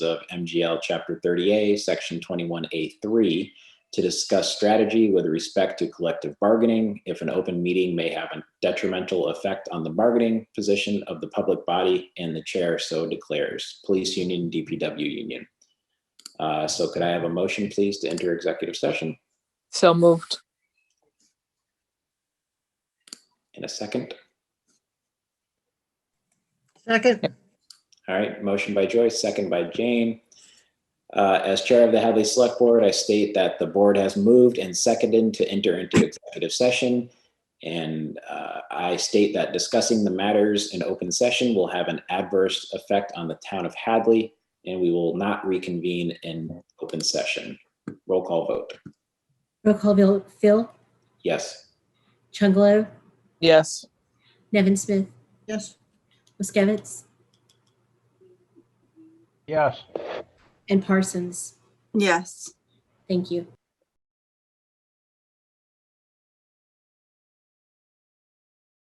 of MGL Chapter 30A, Section 21A3, to discuss strategy with respect to collective bargaining if an open meeting may have a detrimental effect on the bargaining position of the public body and the chair so declares, police union, DPW union. Uh, So could I have a motion, please, to enter executive session So moved. in a second? Second, All right, motion by Joyce, second by Jane. Uh, As Chair of the Hadley Select Board, I state that the board has moved and seconded to enter into executive session. And uh, I state that discussing the matters in open session will have an adverse effect on the town of Hadley, and we will not reconvene in open session. Roll call vote. Roll call vote, Phil, Yes. Chungalo, Yes. Nevin Smith, yes. Muskevitz, Yes. and Parsons. Yes. Thank you.